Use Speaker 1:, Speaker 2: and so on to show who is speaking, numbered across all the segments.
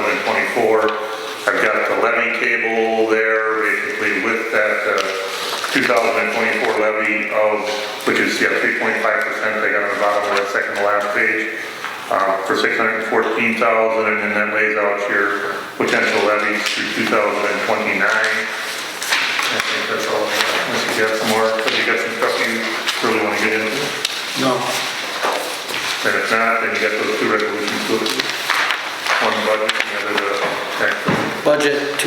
Speaker 1: 2024. I've got the levy table there, basically with that uh, 2024 levy of, which is, yeah, 3.5%, I got on the bottom of that second to last page, uh, for 614,000, and then that lays out your potential levies through 2029. I think that's all, I got. unless you got some more, because you got some stuff you really want to get into.
Speaker 2: No,
Speaker 1: And if not, then you got those two resolutions, to approve. one budget, and the other the tax.
Speaker 2: budget 2023-22,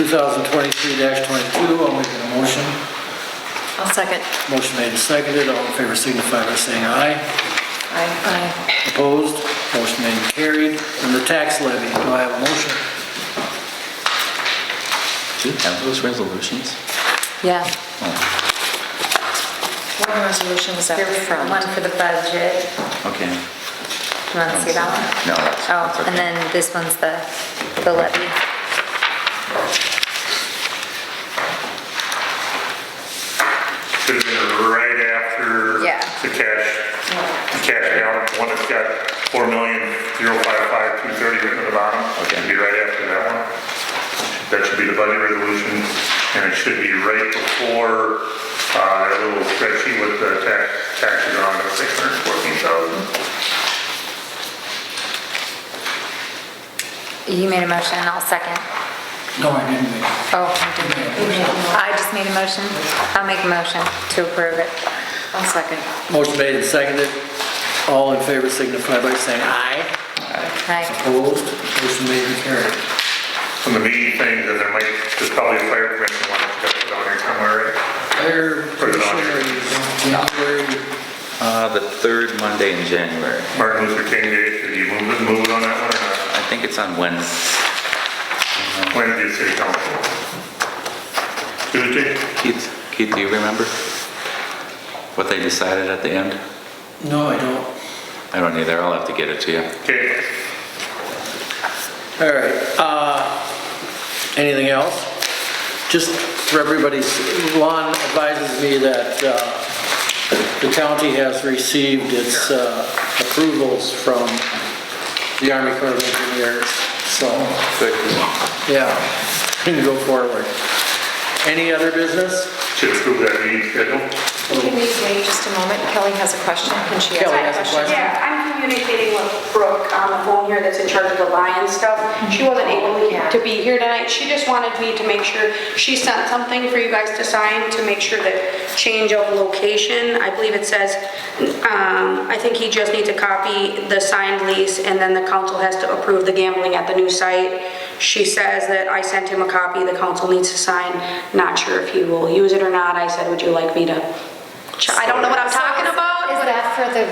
Speaker 2: I'll make a motion.
Speaker 3: I'll second.
Speaker 2: Motion made and seconded, all in favor signify by saying aye.
Speaker 3: Aye.
Speaker 2: Opposed, motion made and carried. And the tax levy, do I have a motion?
Speaker 4: Do you have those resolutions?
Speaker 3: Yeah.
Speaker 4: Oh,
Speaker 3: One resolution was up
Speaker 5: There was one
Speaker 3: front.
Speaker 5: for the budget.
Speaker 4: okay.
Speaker 5: Do you want to see that one?
Speaker 4: No, that's, that's
Speaker 5: Oh,
Speaker 4: okay.
Speaker 5: and then this one's the, the levy.
Speaker 1: Should have been right after
Speaker 5: Yeah.
Speaker 1: the cash, the cash out, one that's got four million, zero five five, two thirty written at the bottom.
Speaker 4: Okay.
Speaker 1: Should be right after that one. That should be the budget resolution, and it should be right before, uh, that little spreadsheet with the tax, taxes on it, six hundred fourteen thousand.
Speaker 5: You made a motion, I'll second.
Speaker 2: No, I didn't make it.
Speaker 5: Oh, I didn't. I just made a motion. I'll make a motion to approve it.
Speaker 3: I'll second.
Speaker 2: Motion made and seconded, all in favor signify by saying aye.
Speaker 5: Right.
Speaker 2: Opposed, motion made and carried.
Speaker 1: Some of the main things, and there might, there's probably a fire prevention one that's got it on here somewhere, right?
Speaker 2: Fire
Speaker 1: Put it on.
Speaker 2: January,
Speaker 5: Oh.
Speaker 4: Uh, the third Monday in January.
Speaker 1: Martin Luther King Day, should you move it, move it on that one or not?
Speaker 4: I think it's on Wednesday.
Speaker 1: When did city council? Tuesday?
Speaker 4: Keith, Keith, do you remember what they decided at the end?
Speaker 2: no, I don't.
Speaker 4: I don't either. I'll have to get it to you.
Speaker 1: Okay,
Speaker 2: All right, uh, anything else? Just for everybody's, Lon advises me that, uh, the county has received its, uh, approvals from the Army Corps of Engineers, so, yeah, can go forward. Any other business?
Speaker 1: should approve that meeting schedule.
Speaker 3: Can you wait just a moment? Kelly has a question. Can she ask a
Speaker 2: Kelly has a
Speaker 3: question?
Speaker 2: question.
Speaker 6: Yeah, I'm communicating with Brooke on the phone here that's in charge of the lion stuff.
Speaker 5: Mm-hmm.
Speaker 6: She wasn't able
Speaker 5: Oh,
Speaker 6: to be here tonight. She just wanted me to make sure, she sent something for you guys to sign to make sure that change of location, I believe it says, um, I think he just needs to copy the signed lease and then the council has to approve the gambling at the new site. She says that I sent him a copy, the council needs to sign. Not sure if he will use it or not. I said, would you like me to? ch- I don't know what I'm talking about.
Speaker 5: Is that for the?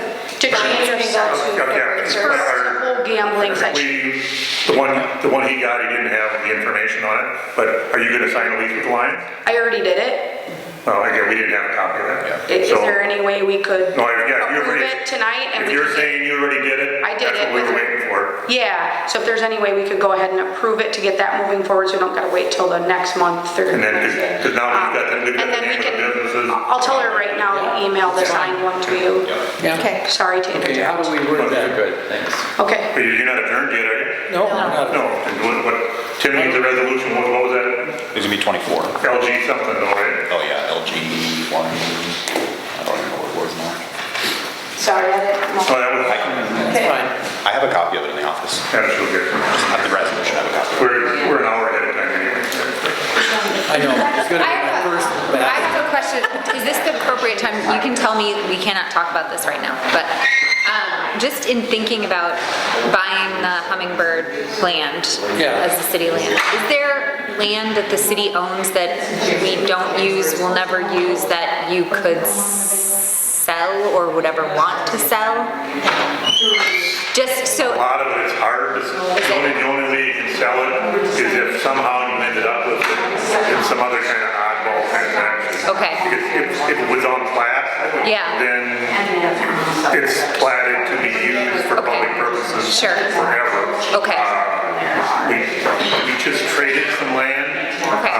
Speaker 6: To change your stuff. It's for simple gambling section.
Speaker 1: We, the one, the one he got, he didn't have the information on it, but are you gonna sign a lease with the Lions?
Speaker 6: I already did it.
Speaker 1: Oh, again, we didn't have a copy of that.
Speaker 6: Is
Speaker 1: So-
Speaker 6: there any way we could
Speaker 1: No, if, yeah, if you already.
Speaker 6: approve it tonight? and
Speaker 1: If
Speaker 6: we
Speaker 1: you're
Speaker 6: could-
Speaker 1: saying you already did it.
Speaker 6: I did
Speaker 1: That's what
Speaker 6: it
Speaker 1: we were
Speaker 6: with-
Speaker 1: waiting for.
Speaker 6: Yeah, so if there's any way we could go ahead and approve it to get that moving forward, so we don't gotta wait till the next month or. Um,
Speaker 1: And then, because now we've got, the- we've got
Speaker 6: And
Speaker 1: the
Speaker 6: then we
Speaker 1: name of the
Speaker 6: can,
Speaker 1: businesses.
Speaker 6: I'll tell her right now, to email the signed one to you.
Speaker 2: Yeah.
Speaker 3: Okay.
Speaker 6: Sorry to
Speaker 2: Okay, how
Speaker 6: interject.
Speaker 2: do we word that?
Speaker 4: Good, thanks.
Speaker 6: Okay,
Speaker 1: But You're not adjourned yet, are you?
Speaker 2: No, not-
Speaker 1: No, and what, what, Tim needs a resolution, what what was that?
Speaker 7: It's gonna be 24. Oh,
Speaker 1: LG something, all right?
Speaker 7: yeah, LG one, I don't even know what it was now.
Speaker 6: sorry, I didn't.
Speaker 1: Oh, that was,
Speaker 7: I can,
Speaker 2: it's fine.
Speaker 7: I have a copy of it in the office.
Speaker 1: that's so good.
Speaker 7: I have the resolution, I have a copy.
Speaker 1: We're, we're an hour ahead of time anyway.
Speaker 2: I know, it's gonna
Speaker 5: I
Speaker 2: be my
Speaker 5: have
Speaker 2: first
Speaker 5: a- I
Speaker 2: back.
Speaker 5: have a question. Is this the appropriate time? You can tell me, we cannot talk about this right now, but um, just in thinking about buying the Hummingbird land
Speaker 2: Yeah.
Speaker 5: as the city land, is there land that the city owns that we don't use, will never use, that you could s- sell or would ever want to sell? Just
Speaker 1: A
Speaker 5: so,
Speaker 1: lot of it's hard, to sell. the only, the only way you can sell it is if somehow you ended up with it in some other kind of oddball transaction.
Speaker 5: Okay.
Speaker 1: Because if, if it was on plat.
Speaker 5: Yeah.
Speaker 1: Then it's platted to be used for
Speaker 5: Okay.
Speaker 1: public purposes.
Speaker 5: Sure.
Speaker 1: Forever.
Speaker 5: Okay.
Speaker 1: Uh, We we just traded some land.
Speaker 5: Okay.
Speaker 1: Uh,